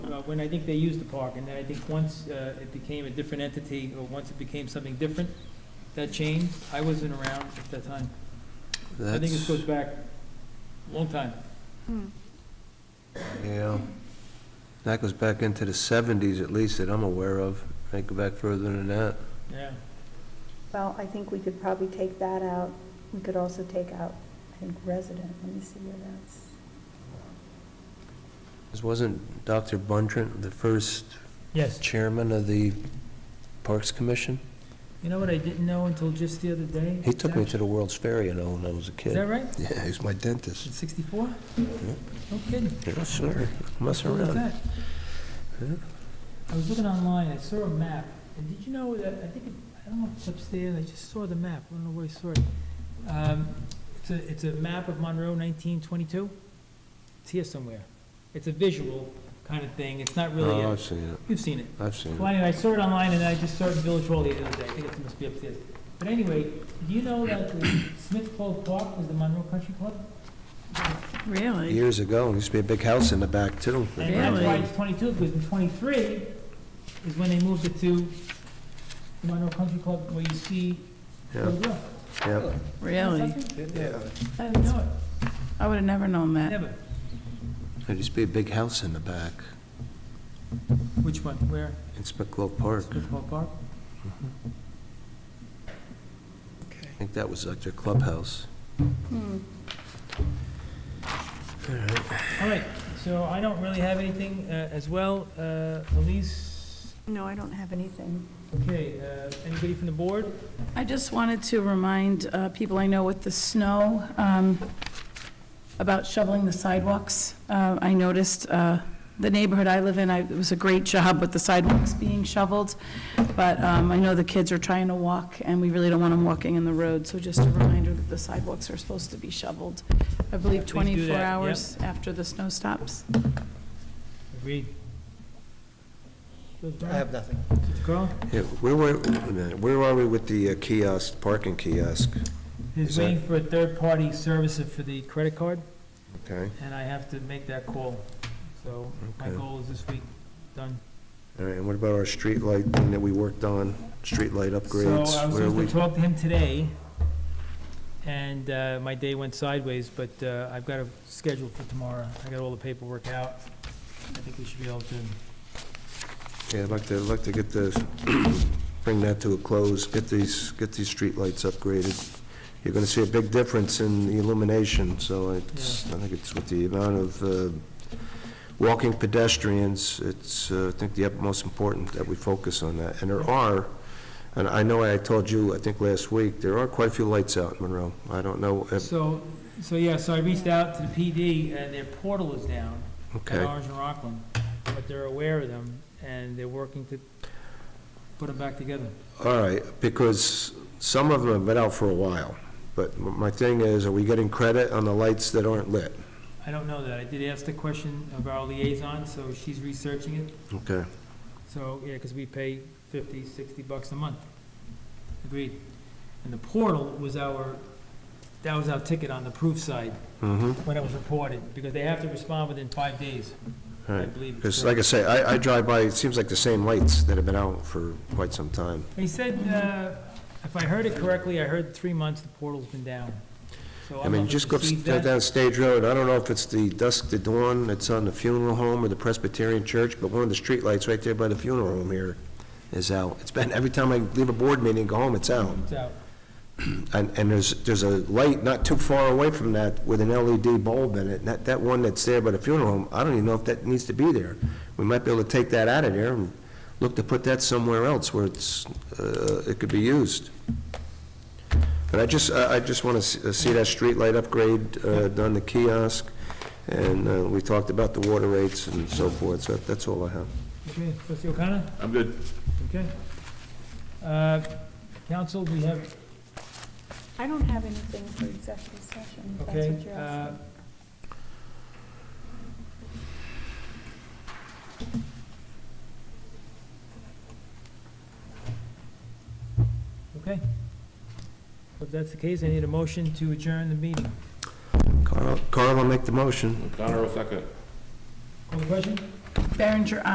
uh, when I think they used the park, and then I think once uh, it became a different entity, or once it became something different, that changed. I wasn't around at that time. I think this That's, goes back a long time. yeah. That goes back into the seventies at least that I'm aware of. Might go back further than that. Yeah. Well, I think we could probably take that out. We could also take out, I think, resident. Let me see where that's. This wasn't Dr. Bundrant, the first Yes. chairman of the Parks Commission? You know what I didn't know until just the other day? He took me to the World's Fair, you know, when I was Is a that kid. right? Yeah, he was my dentist. In 64? No kidding. Yes, sir. Mess Oh, Look at around. that. Yeah. I was looking online, I saw a map, and did you know that, I think, it- I don't know if it's upstairs, I just saw the map, I don't know where I saw it. Um, It's a, it's a map of Monroe 1922. It's here somewhere. It's a visual kind of thing, it's not really, Oh, a- I've seen it. you've seen it. I've seen Well, it. anyway, I saw it online, and I just saw it in Village Hall the other day, I think it must be upstairs. But anyway, do you know that the Smith Cove Park was the Monroe Country Club? Really? Years ago, and there used to be a big house in the back, too. And that's why Really? it's 22, because in 23 is when they moved it to Monroe Country Club, where you see the Yeah, grill. yeah. Really? Yeah. I No, would have never known that. never. There used to be a big house in the back Which one, where? in Spicklove Park. Smith Hall Park? I think that was like their clubhouse. All right, so I don't really have anything uh, as well. Uh, Elise, No, I don't have anything. okay, uh, anybody from the board? I just wanted to remind uh, people I know with the snow um, about shoveling the sidewalks. Uh, I noticed uh, the neighborhood I live in, I- it was a great job with the sidewalks being shoveled, but um, I know the kids are trying to walk, and we really don't want them walking in the road, so just a reminder that the sidewalks are supposed to be shoveled, I believe, Please do 24 that, yep. hours after the snow stops. Agreed. I have nothing. Carl? Yeah, where were, wait a minute, where are we with the uh, kiosk, parking kiosk? He's Is that- waiting for a third-party services for the credit card, Okay, and I have to make that call. So my Okay. goal is this week, done. all right, and what about our street light thing that we worked on, street light upgrades? So I was Where are supposed to we? talk to him today, and uh, my day went sideways, but uh, I've got a schedule for tomorrow. I got all the paperwork out. I think we should be able to, Yeah, I'd like to, I'd like to get the, bring that to a close, get these, get these street lights upgraded. You're gonna see a big difference in the illumination, so it's, I think it's with the amount of uh, walking pedestrians, it's, uh, I think the utmost important that we focus on that. And there are, and I know I told you, I think last week, there are quite a few lights out in Monroe. I don't know, if- so, so yeah, so I reached out to the PD, and their portal is down at okay. Orange and Rockland, but they're aware of them, and they're working to put them back together. All right, because some of them have been out for a while, but my thing is, are we getting credit on the lights that aren't lit? I don't know that. I did ask the question of our liaison, so she's researching it. Okay. So, yeah, because we pay 50, 60 bucks a month. Agreed. And the portal was our, that was our ticket on the proof side Mm-hmm, when it was reported, because they have to respond within five days, all I right. believe. it's Because like I say, I, I drive by, it seems like the same lights that have been out for quite some time. He said, uh, if I heard it correctly, I heard three months the portal's been down. So I I'm mean, not just go gonna up- concede that. down Stage Road, I don't know if it's the dusk to dawn that's on the funeral home or the Presbyterian church, but one of the streetlights right there by the funeral home here is out. It's been, every time I leave a board meeting and go home, it's out. It's out. And, and there's, there's a light not too far away from that with an LED bulb in it, and that, that one that's there by the funeral home, I don't even know if that needs to be there. We might be able to take that out of there and look to put that somewhere else where it's, uh, it could be used. But I just, I, I just wanna see, see that street light upgrade, uh, done the kiosk, and, uh, we talked about the water rates and so forth, so that's all I have. Okay, trustee O'Connor? I'm good. Okay. Uh, Counsel, we have I don't have anything for executive session. if That's Okay, what you're uh, asking. Okay. If that's the case, I need a motion to adjourn the meeting. Carl, Carl will make the motion. O'Connor will second. Call the question? Berenger,